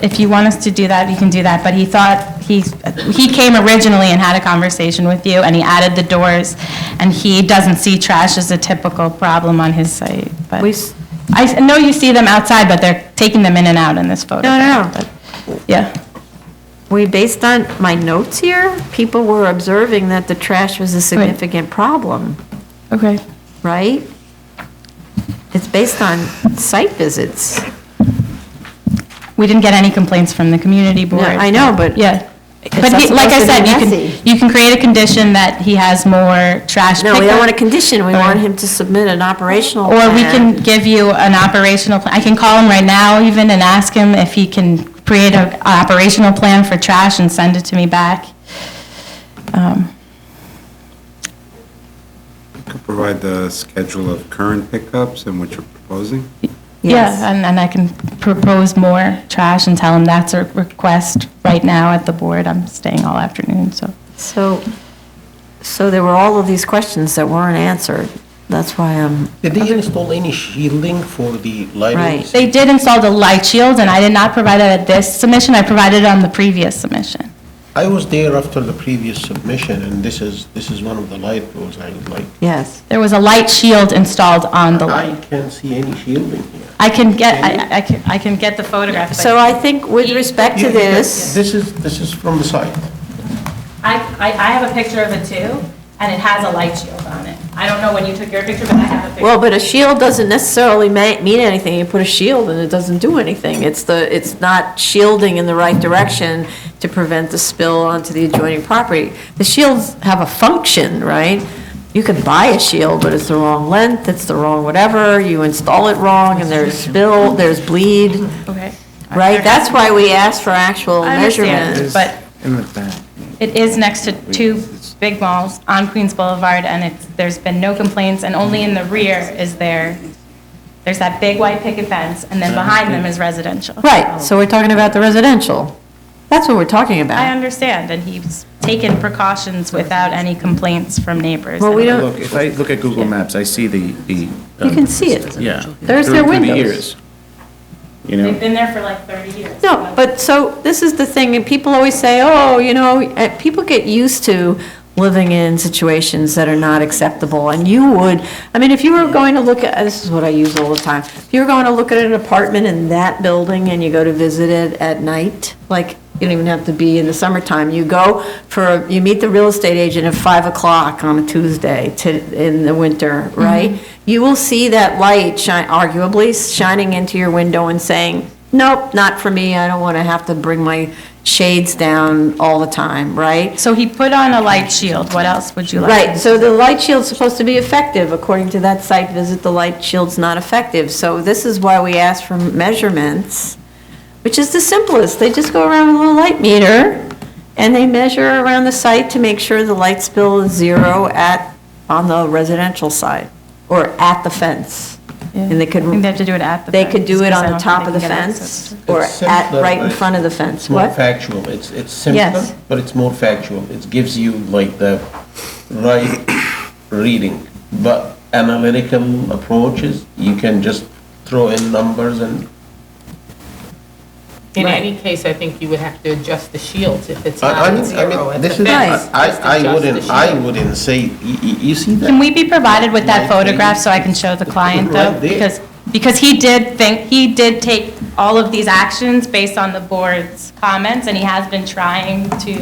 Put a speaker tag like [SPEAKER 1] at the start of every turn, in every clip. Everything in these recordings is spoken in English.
[SPEAKER 1] if you want us to do that, you can do that, but he thought, he, he came originally and had a conversation with you, and he added the doors, and he doesn't see trash as a typical problem on his site, but,
[SPEAKER 2] We s-
[SPEAKER 1] I s- know you see them outside, but they're taking them in and out in this photo.
[SPEAKER 2] No, no.
[SPEAKER 1] Yeah,
[SPEAKER 2] We, based on my notes here, people were observing that the trash was a significant problem,
[SPEAKER 1] okay.
[SPEAKER 2] right? It's based on site visits.
[SPEAKER 1] We didn't get any complaints from the community
[SPEAKER 2] No,
[SPEAKER 1] board.
[SPEAKER 2] I know, but
[SPEAKER 1] Yeah.
[SPEAKER 2] It's
[SPEAKER 1] But
[SPEAKER 2] not
[SPEAKER 1] he- like I
[SPEAKER 2] supposed to
[SPEAKER 1] said,
[SPEAKER 2] be
[SPEAKER 1] you
[SPEAKER 2] messy.
[SPEAKER 1] can, you can create a condition that he has more trash
[SPEAKER 2] No, we don't want a
[SPEAKER 1] pickup,
[SPEAKER 2] condition, we
[SPEAKER 1] Or-
[SPEAKER 2] want him to submit an operational
[SPEAKER 1] Or we
[SPEAKER 2] plan.
[SPEAKER 1] can give you an operational, plan. I can call him right now even and ask him if he can create an operational plan for trash and send it to me back. Um,
[SPEAKER 3] Could Provide the schedule of current pickups and what you're proposing?
[SPEAKER 2] Yes.
[SPEAKER 1] Yeah, and, and I can propose more trash and tell him that's a request right now at the board. I'm staying all afternoon, so.
[SPEAKER 2] So, so there were all of these questions that weren't answered. That's why I'm,
[SPEAKER 4] Did they install any shielding for the lighting?
[SPEAKER 2] Right.
[SPEAKER 1] They did install the light shield, and I did not provide that at this submission, I provided it on the previous submission.
[SPEAKER 4] I was there after the previous submission, and this is, this is one of the light poles I would like.
[SPEAKER 2] yes.
[SPEAKER 1] There was a light shield installed on the
[SPEAKER 4] I
[SPEAKER 1] light.
[SPEAKER 4] can't see any shielding here.
[SPEAKER 1] I can get, I, I can, I can get the photograph. but
[SPEAKER 2] So I think with respect to
[SPEAKER 4] Yeah, yeah,
[SPEAKER 2] this,
[SPEAKER 4] This is, this is from the site.
[SPEAKER 1] I, I, I have a picture of it too, and it has a light shield on it. I don't know when you took your picture, but I have a picture.
[SPEAKER 2] well, but a shield doesn't necessarily ma- mean anything. You put a shield and it doesn't do anything. It's the, it's not shielding in the right direction to prevent the spill onto the adjoining property. The shields have a function, right? You can buy a shield, but it's the wrong length, it's the wrong whatever, you install it wrong, and there's spill, there's bleed,
[SPEAKER 1] Okay.
[SPEAKER 2] right? That's why we asked for actual
[SPEAKER 1] I understand,
[SPEAKER 2] measurements.
[SPEAKER 1] But
[SPEAKER 5] In the back.
[SPEAKER 1] it is next to two big malls on Queens Boulevard, and it's, there's been no complaints, and only in the rear is there, there's that big white picket fence, and then behind them is residential.
[SPEAKER 2] Right, so we're talking about the residential. That's what we're talking
[SPEAKER 1] I
[SPEAKER 2] about.
[SPEAKER 1] understand, and he's taken precautions without any complaints from neighbors.
[SPEAKER 2] Well, we don't-
[SPEAKER 5] Look, if I look at Google Maps, I see the, the.
[SPEAKER 2] You can see it.
[SPEAKER 5] Yeah.
[SPEAKER 2] There's their
[SPEAKER 5] Through the
[SPEAKER 2] windows.
[SPEAKER 5] years, You
[SPEAKER 1] They've
[SPEAKER 5] know,
[SPEAKER 1] been there for like 30 years.
[SPEAKER 2] No, but so, this is the thing, and people always say, oh, you know, eh, people get used to living in situations that are not acceptable, and you would, I mean, if you were going to look at, this is what I use all the time, if you were going to look at an apartment in that building and you go to visit it at night, like, you don't even have to be in the summertime, you go for, you meet the real estate agent at 5 o'clock on a Tuesday to, in the winter, right? You will see that light shine, arguably shining into your window and saying, nope, not for me, I don't want to have to bring my shades down all the time, right?
[SPEAKER 1] So he put on a light shield, what else would you like?
[SPEAKER 2] Right, so the light shield's supposed to be effective, according to that site visit, the light shield's not effective, so this is why we asked for measurements, which is the simplest, they just go around with a little light meter, and they measure around the site to make sure the light spill is zero at, on the residential side, or at the fence, and they could,
[SPEAKER 1] I think they have to do it at the
[SPEAKER 2] they
[SPEAKER 1] fence,
[SPEAKER 2] could do it
[SPEAKER 1] because I
[SPEAKER 2] on the
[SPEAKER 1] don't
[SPEAKER 2] top
[SPEAKER 1] think
[SPEAKER 2] of
[SPEAKER 1] they
[SPEAKER 2] the
[SPEAKER 1] can get access
[SPEAKER 2] fence,
[SPEAKER 1] to it.
[SPEAKER 2] or
[SPEAKER 4] It's
[SPEAKER 2] at,
[SPEAKER 4] simpler,
[SPEAKER 2] right
[SPEAKER 4] but
[SPEAKER 2] in front of the
[SPEAKER 4] It's
[SPEAKER 2] fence,
[SPEAKER 4] more
[SPEAKER 2] what?
[SPEAKER 4] factual, it's, it's simpler,
[SPEAKER 2] Yes.
[SPEAKER 4] but it's more factual. It gives you like the right reading. But analytical approaches, you can just throw in numbers and
[SPEAKER 6] In
[SPEAKER 2] Right.
[SPEAKER 6] any case, I think you would have to adjust the shields if it's
[SPEAKER 4] I- I
[SPEAKER 6] not
[SPEAKER 4] mean-
[SPEAKER 6] at
[SPEAKER 4] I
[SPEAKER 6] zero
[SPEAKER 4] mean,
[SPEAKER 6] at the
[SPEAKER 4] this is-
[SPEAKER 6] fence.
[SPEAKER 4] I,
[SPEAKER 6] just
[SPEAKER 4] I- I
[SPEAKER 6] adjust the
[SPEAKER 4] wouldn't, I
[SPEAKER 6] shield.
[SPEAKER 4] wouldn't say, y- y- you see that?
[SPEAKER 1] Can we be provided with that
[SPEAKER 4] Right there.
[SPEAKER 1] photograph so I can show the client though?
[SPEAKER 4] Right there.
[SPEAKER 1] Because, because he did think, he did take all of these actions based on the board's comments and he has been trying to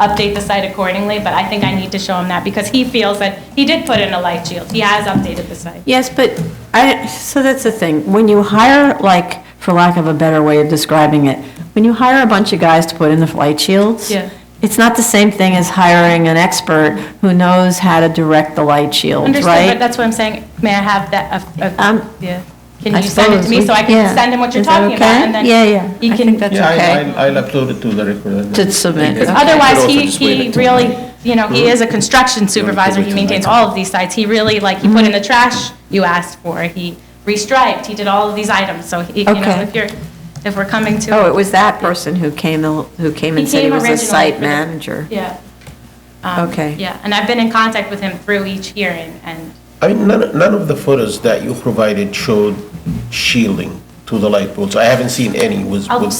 [SPEAKER 1] update the site accordingly, but I think I need to show him that because he feels that he did put in a light shield. He has updated the site.
[SPEAKER 2] Yes, but I, so that's the thing, when you hire, like, for lack of a better way of describing it, when you hire a bunch of guys to put in the light shields.
[SPEAKER 1] Yeah.
[SPEAKER 2] It's not the same thing as hiring an expert who knows how to direct the light shields,
[SPEAKER 1] Understood, but
[SPEAKER 2] right?
[SPEAKER 1] that's what I'm saying. May I have that, a- a-
[SPEAKER 2] Um,
[SPEAKER 1] yeah. Can
[SPEAKER 2] I
[SPEAKER 1] you send it to
[SPEAKER 2] suppose
[SPEAKER 1] me
[SPEAKER 2] we-
[SPEAKER 1] so I
[SPEAKER 2] yeah.
[SPEAKER 1] can send him what you're
[SPEAKER 2] Is that
[SPEAKER 1] talking about?
[SPEAKER 2] okay?
[SPEAKER 1] and then
[SPEAKER 2] Yeah, yeah.
[SPEAKER 1] He
[SPEAKER 2] I
[SPEAKER 1] can.
[SPEAKER 2] think that's
[SPEAKER 4] Yeah, I-
[SPEAKER 2] okay.
[SPEAKER 4] I'll, I'll upload it to the record.
[SPEAKER 2] To submit.
[SPEAKER 5] Yeah.
[SPEAKER 1] Otherwise,
[SPEAKER 5] Could also
[SPEAKER 1] he,
[SPEAKER 5] just wait
[SPEAKER 1] he
[SPEAKER 5] until
[SPEAKER 1] really, you know,
[SPEAKER 5] Hmm?
[SPEAKER 1] he is a construction supervisor, he maintains all of these sites, he really, like, he put in the
[SPEAKER 5] Hmm?
[SPEAKER 1] trash you asked for, he restriped, he did all of these items, so, he- you know,
[SPEAKER 2] Okay.
[SPEAKER 1] if you're, if we're coming to.
[SPEAKER 2] Oh, it was that person who came, el- who came and said he
[SPEAKER 1] came
[SPEAKER 2] was a
[SPEAKER 1] originally
[SPEAKER 2] site
[SPEAKER 1] for the-
[SPEAKER 2] manager.
[SPEAKER 1] Yeah. Um,
[SPEAKER 2] Okay.
[SPEAKER 1] Yeah, and I've been in contact with him through each hearing, and
[SPEAKER 4] I mean, none, none of the photos that you provided showed shielding to the light poles. I haven't seen any with.
[SPEAKER 1] I'll
[SPEAKER 4] with-